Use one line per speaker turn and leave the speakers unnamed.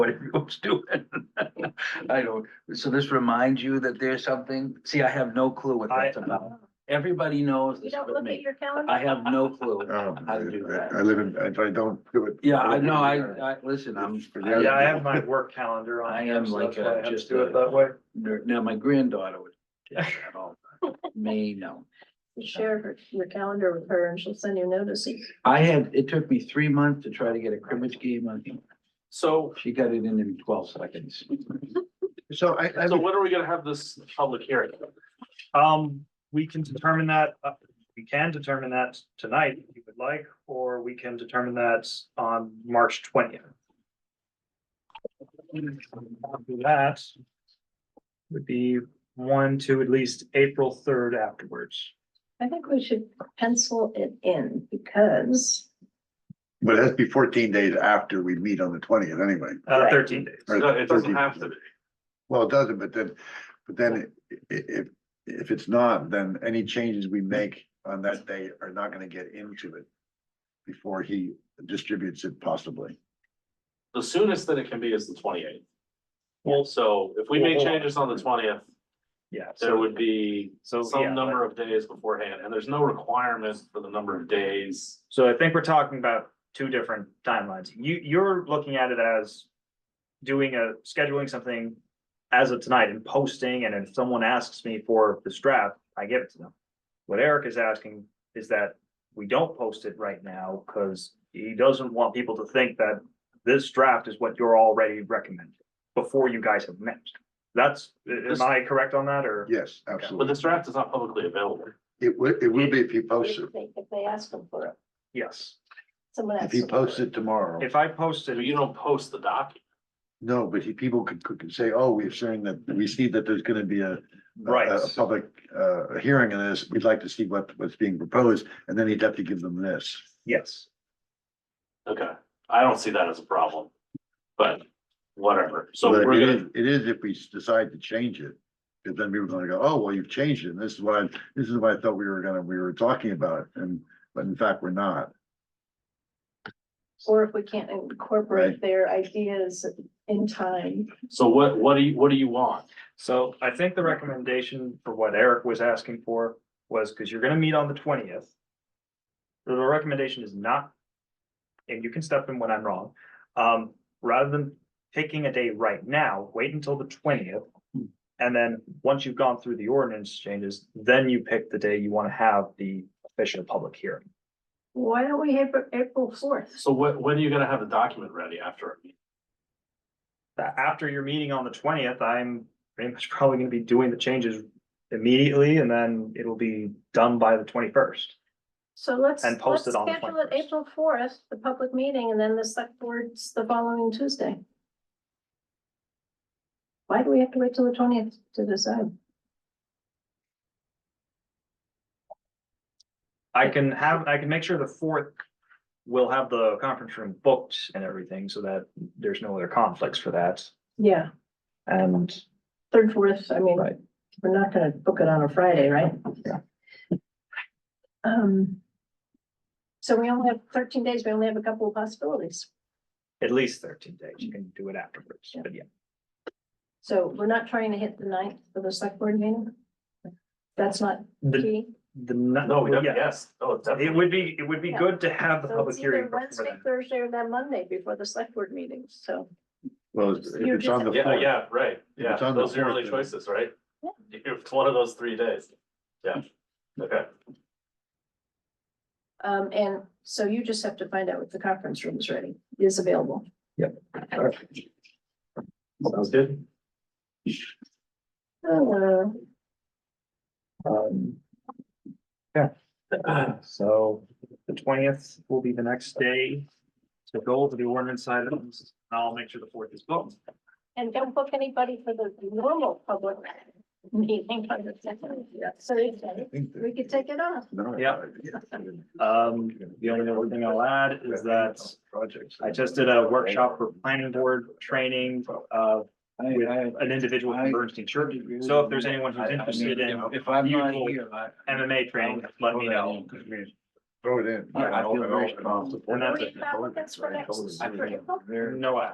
whatever he was doing. I don't, so this reminds you that there's something, see, I have no clue what that's
I-
about. Everybody knows
You
this
don't
with
look at
me.
your calendar?
I have no clue.
Oh,
How to do that.
I I live in, if I don't do it.
Yeah, I know, I, I, listen, I'm.
Yeah,
Yeah, I have my work calendar on.
I
here,
am
so
like
that's why I
a-
have to
just a-
Do it that way.
nerd. Now, my granddaughter would. take that all the time. Me, no.
You Share her, your calendar with her and she'll send you notices.
I had, it took me three months to try to get a cribbage game on.
So,
She got it in in twelve seconds.
So I, I,
so when are we gonna have this public hearing?
Um, we can determine that, uh, we can determine that tonight if you would like, or we can determine that on March twentieth. That would be one to at least April third afterwards.
I think we should pencil it in because
but it has to be fourteen days after we meet on the twentieth anyway.
Uh,
Right.
thirteen days.
or
No, it doesn't
13th.
have to be.
Well, it doesn't, but then, but then i- i- if, if it's not, then any changes we make on that day are not gonna get into it. Before he distributes it possibly.
The soonest that it can be is the twenty eighth.
Well-
So if we
Well,
make
hold on.
changes on the twentieth,
Yeah.
there
so-
would be
So, yeah,
some number of days beforehand, and there's no requirement for the number of days.
So I think we're talking about two different timelines. You, you're looking at it as doing a, scheduling something as of tonight and posting, and if someone asks me for this draft, I give it to them. What Eric is asking is that we don't post it right now, because he doesn't want people to think that this draft is what you're already recommending before you guys have met. That's, am I correct on that, or?
Yes,
But
absolutely.
this draft is not publicly available.
It will, it will be if he posts it,
if they, if they ask them for it,
Yes,
someone
if
asks.
he
them for
posts it tomorrow.
if I posted.
You don't post the document.
No, but he, people could, could say, oh, we're sharing that, we see that there's gonna be a. a-
Right.
A public, uh, hearing on this, we'd like to see what, what's being proposed, and then he'd have to give them this.
Yes.
Okay, I don't see that as a problem. But whatever, so
But
we're
it
gonna,
is- It is if we s- decide to change it, because then people are gonna go, oh, well, you've changed it, and this is what I, this is what I thought we were gonna, we were talking about, and, but in fact, we're not.
Or if we can't incorporate
Right.
their ideas in time.
so what, what do you, what do you want?
So I think the recommendation for what Eric was asking for was, because you're gonna meet on the twentieth. The recommendation is not, and you can step in when I'm wrong, um, rather than picking a day right now, wait until the twentieth. And then, once you've gone through the ordinance changes, then you pick the day you wanna have the official public hearing.
Why don't we have it April fourth?
So when, when are you gonna have the document ready after? our meeting?
That after your meeting on the twentieth, I'm pretty much probably gonna be doing the changes immediately, and then it'll be done by the twenty-first.
So let's.
And post
let's
it on the
Schedule it
21st.
April fourth, the public meeting, and then the select board's the following Tuesday. Why do we have to wait till the twentieth to decide?
I can have, I can make sure the fourth will have the conference room booked and everything so that there's no other conflicts for that.
Yeah,
And
third, fourth, I mean,
Right.
we're not gonna book it on a Friday, right?
Yeah.
Um. So we only have thirteen days, we only have a couple of possibilities.
at least thirteen days, you can do it afterwards, but yeah.
So we're not trying to hit the ninth for the select board meeting? That's not
The,
key.
the.
No, we
yeah.
definitely, yes, oh, definitely.
It would be, it would be
Yeah.
good to have the
So
public
it's either
hearing. before
Wednesday,
then.
Thursday, or then Monday before the select board meeting, so.
Well, if
You're
it's on the
Yeah,
floor,
yeah, right,
If
yeah,
it's on the
those are your
fourth,
only
then-
choices, right?
Yeah.
It's one of those three days, yeah, okay,
Um, and so you just have to find out if the conference room is ready, is available.
Sounds good.
Uh,
Um. Yeah, so the twentieth will be the next day. The goal to the ordinance items, I'll make sure the fourth is booked.
And don't book anybody for the normal public meeting on the second. So
I think that-
we could take it off.
No,
Yeah. Um, the only other thing I'll add is that
Projects.
I just did a workshop for planning board training, uh,
I,
with
I.
an individual from Bernstein Church. So if there's anyone who's
I- I mean,
interested in
if- If I'm not
mutual
here, I.
MMA training, let me know.
Throw it in.
Yeah, I feel very strong.
And that's
it.
Right,
That's for next-
totally.
I feel very-
No,